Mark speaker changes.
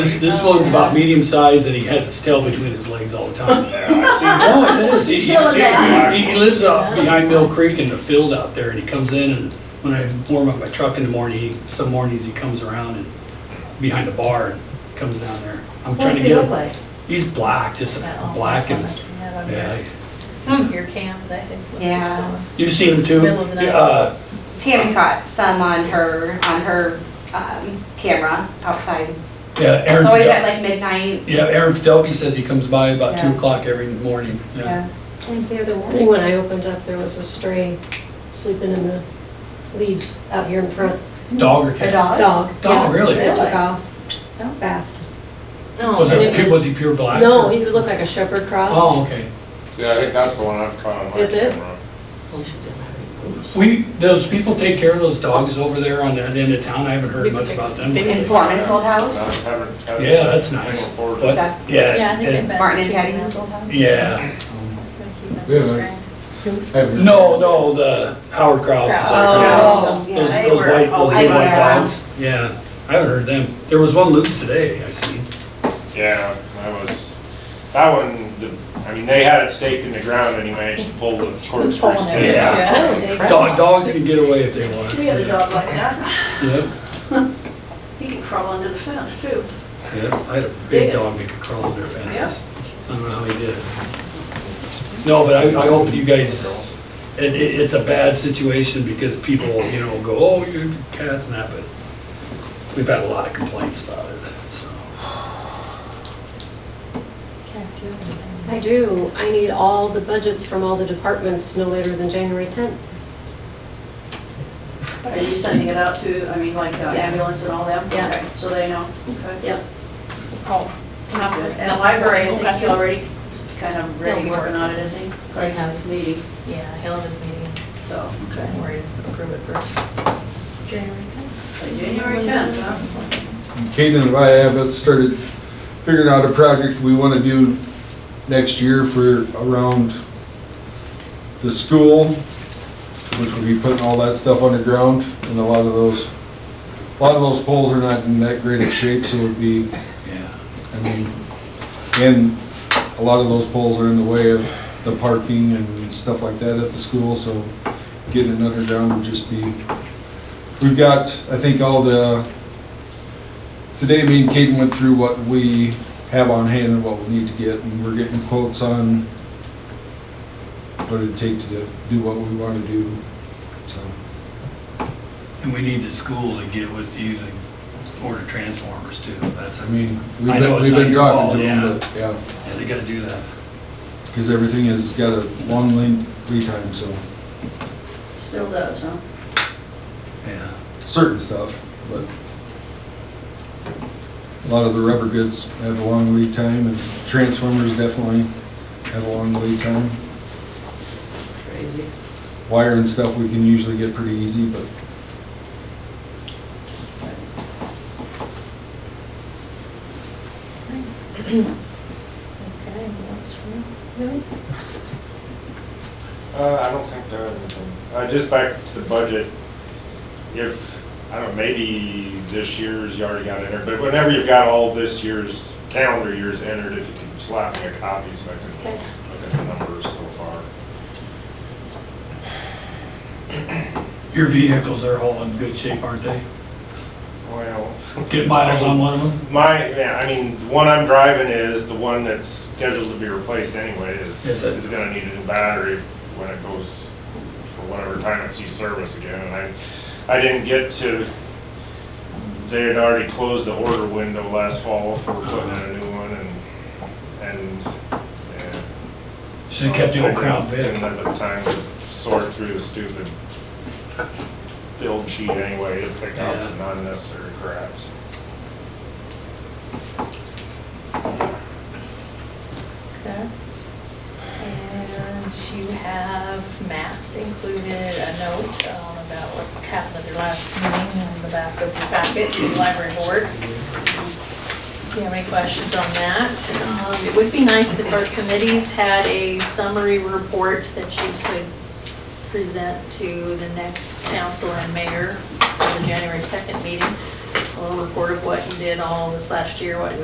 Speaker 1: This, this one's about medium size and he has his tail between his legs all the time.
Speaker 2: Yeah, I've seen
Speaker 1: Oh,
Speaker 2: that.
Speaker 1: it is. He-
Speaker 3: He's
Speaker 1: he-
Speaker 3: feeling bad.
Speaker 1: He, he lives out behind Mill Creek in the field out there and he comes in and when I warm up my truck in the morning, he- some mornings he comes around and behind the bar and comes down there. I'm
Speaker 3: What
Speaker 1: trying to
Speaker 3: does he
Speaker 1: get
Speaker 3: look
Speaker 1: him.
Speaker 3: like?
Speaker 1: He's black, just
Speaker 4: oh,
Speaker 1: black and, yeah.
Speaker 4: Your cam, that had.
Speaker 5: Yeah.
Speaker 1: You seen him too?
Speaker 4: Middle of the night.
Speaker 1: Uh,
Speaker 5: Tammy caught some on her, on her um, camera outside.
Speaker 1: yeah, Aaron.
Speaker 5: It's always at like midnight.
Speaker 1: Yeah, Aaron Fidelby says he comes by about two
Speaker 5: Yeah.
Speaker 1: o'clock every morning, yeah.
Speaker 5: Yeah.
Speaker 6: And the other morning when I opened up, there was a stray sleeping in the leaves out here in front.
Speaker 1: Dog or
Speaker 5: A
Speaker 1: cat?
Speaker 5: dog?
Speaker 6: Dog.
Speaker 1: Dog,
Speaker 6: Oh, yeah.
Speaker 1: Oh,
Speaker 6: Oh.
Speaker 1: really?
Speaker 6: It took
Speaker 3: Really?
Speaker 6: off fast.
Speaker 1: Was
Speaker 6: and
Speaker 1: it,
Speaker 6: it
Speaker 1: pu-
Speaker 6: was-
Speaker 1: was he pure black?
Speaker 6: No,
Speaker 1: or-
Speaker 6: he looked like a shepherd cross.
Speaker 1: Oh, okay.
Speaker 2: See, I think that's the one I've caught on my camera.
Speaker 6: Is it?
Speaker 1: We, those people take care of those dogs over there on that end of town, I haven't heard much about them. Yeah,
Speaker 5: In Foreman's old
Speaker 2: I
Speaker 5: house?
Speaker 2: haven't- haven't-
Speaker 1: that's nice.
Speaker 2: haven't reported.
Speaker 1: What?
Speaker 5: that-
Speaker 4: Yeah, I think
Speaker 1: Yeah,
Speaker 4: they've
Speaker 1: and-
Speaker 4: been.
Speaker 5: Martin and Patty's old house?
Speaker 1: yeah.
Speaker 4: Yeah.
Speaker 1: No, no, the Howard Kraus.
Speaker 5: Oh,
Speaker 1: Those,
Speaker 5: yeah.
Speaker 4: they
Speaker 1: those
Speaker 4: were
Speaker 1: white, those
Speaker 4: always
Speaker 1: big white
Speaker 5: around.
Speaker 1: dogs, yeah, I haven't heard them. There was one loose today, I seen.
Speaker 2: Yeah, that was, that one, the, I mean, they had it staked in the ground and he managed to pull the cord through his
Speaker 1: it.
Speaker 2: head.
Speaker 1: Yeah. Dog, dogs can get away if they want.
Speaker 3: We had a dog like that.
Speaker 1: Yep,
Speaker 3: He could crawl under the fence too.
Speaker 1: yep, I had a big dog that could crawl under fences, so I don't know how he did it. No, but I, I hope you guys, it, it, it's a bad situation because people, you know, go, oh, you cats and that, but we've had a lot of complaints about it, so.
Speaker 6: I do. I need all the budgets from all the departments no later than January 10th.
Speaker 3: Are you sending it out to, I mean, like uh,
Speaker 6: Yeah.
Speaker 3: ambulance and all them?
Speaker 6: Yeah.
Speaker 3: Okay, So they know. Okay.
Speaker 6: Yep.
Speaker 3: Sounds good. And the library, I think he already kind of ready
Speaker 4: He'll work.
Speaker 3: working on it, is he?
Speaker 4: Already has.
Speaker 3: Meeting,
Speaker 4: Yeah, hell of his meeting,
Speaker 3: so.
Speaker 4: don't worry, approve it first. January
Speaker 3: January tenth, huh?
Speaker 7: Kaden and I have started figuring out a project we want to do next year for around the school, which will be putting all that stuff underground, and a lot of those, a lot of those poles are not in that great of shape, so it'd be,
Speaker 1: Yeah.
Speaker 7: I mean, and a lot of those poles are in the way of the parking and stuff like that at the school, so getting it underground would just be, we've got, I think, all the, today me and Kaden went through what we have on hand and what we need to get, and we're getting quotes on what it'd take to do what we want to do, so.
Speaker 1: And we need the school to get with you to order transformers too, that's,
Speaker 7: I mean, we've
Speaker 1: I know it's
Speaker 7: been, we've
Speaker 1: not
Speaker 7: been
Speaker 1: your
Speaker 7: talking to
Speaker 1: fault,
Speaker 7: them, but, yeah,
Speaker 1: yeah, they gotta do that.
Speaker 7: because everything has got a long lead, lead time, so,
Speaker 3: Still does, huh?
Speaker 1: Yeah.
Speaker 7: certain stuff, but a lot of the rubber goods have a long lead time, and transformers definitely have a long lead time.
Speaker 3: Crazy.
Speaker 7: Wire and stuff we can usually get pretty easy, but
Speaker 4: Okay, what else for
Speaker 2: Uh, I don't think that, uh, just back to the budget, if, I don't, know, maybe this year's, you already got entered, but whenever you've got all this year's, calendar years entered, if you can slap me a copy so I can
Speaker 6: Okay.
Speaker 2: look at the numbers so far.
Speaker 1: Your vehicles are all in good shape, aren't they?
Speaker 2: Well.
Speaker 1: Get miles on one of them?
Speaker 2: My, yeah, I mean, the one I'm driving is the one that's scheduled to be replaced anyway, is,
Speaker 1: Yes, sir.
Speaker 2: is gonna need a new battery when it goes, for whatever time it sees service again, and I, I didn't get to, they had already closed the order window last fall for putting in a new one, and, and, yeah.
Speaker 1: Should've kept the old Crown
Speaker 2: I Didn't
Speaker 1: Vic.
Speaker 2: have the time to sort through the stupid build sheet anyway, to pick out
Speaker 1: Yeah.
Speaker 2: the unnecessary craps.
Speaker 4: Okay. And you have, Matt's included a note um, about what happened at their last meeting on the back of the packet, the library board. If you have any questions on that, um, it would be nice if our committees had a summary report that you could present to the next council and mayor for the January 2nd meeting. little report of what you did all this last year, what you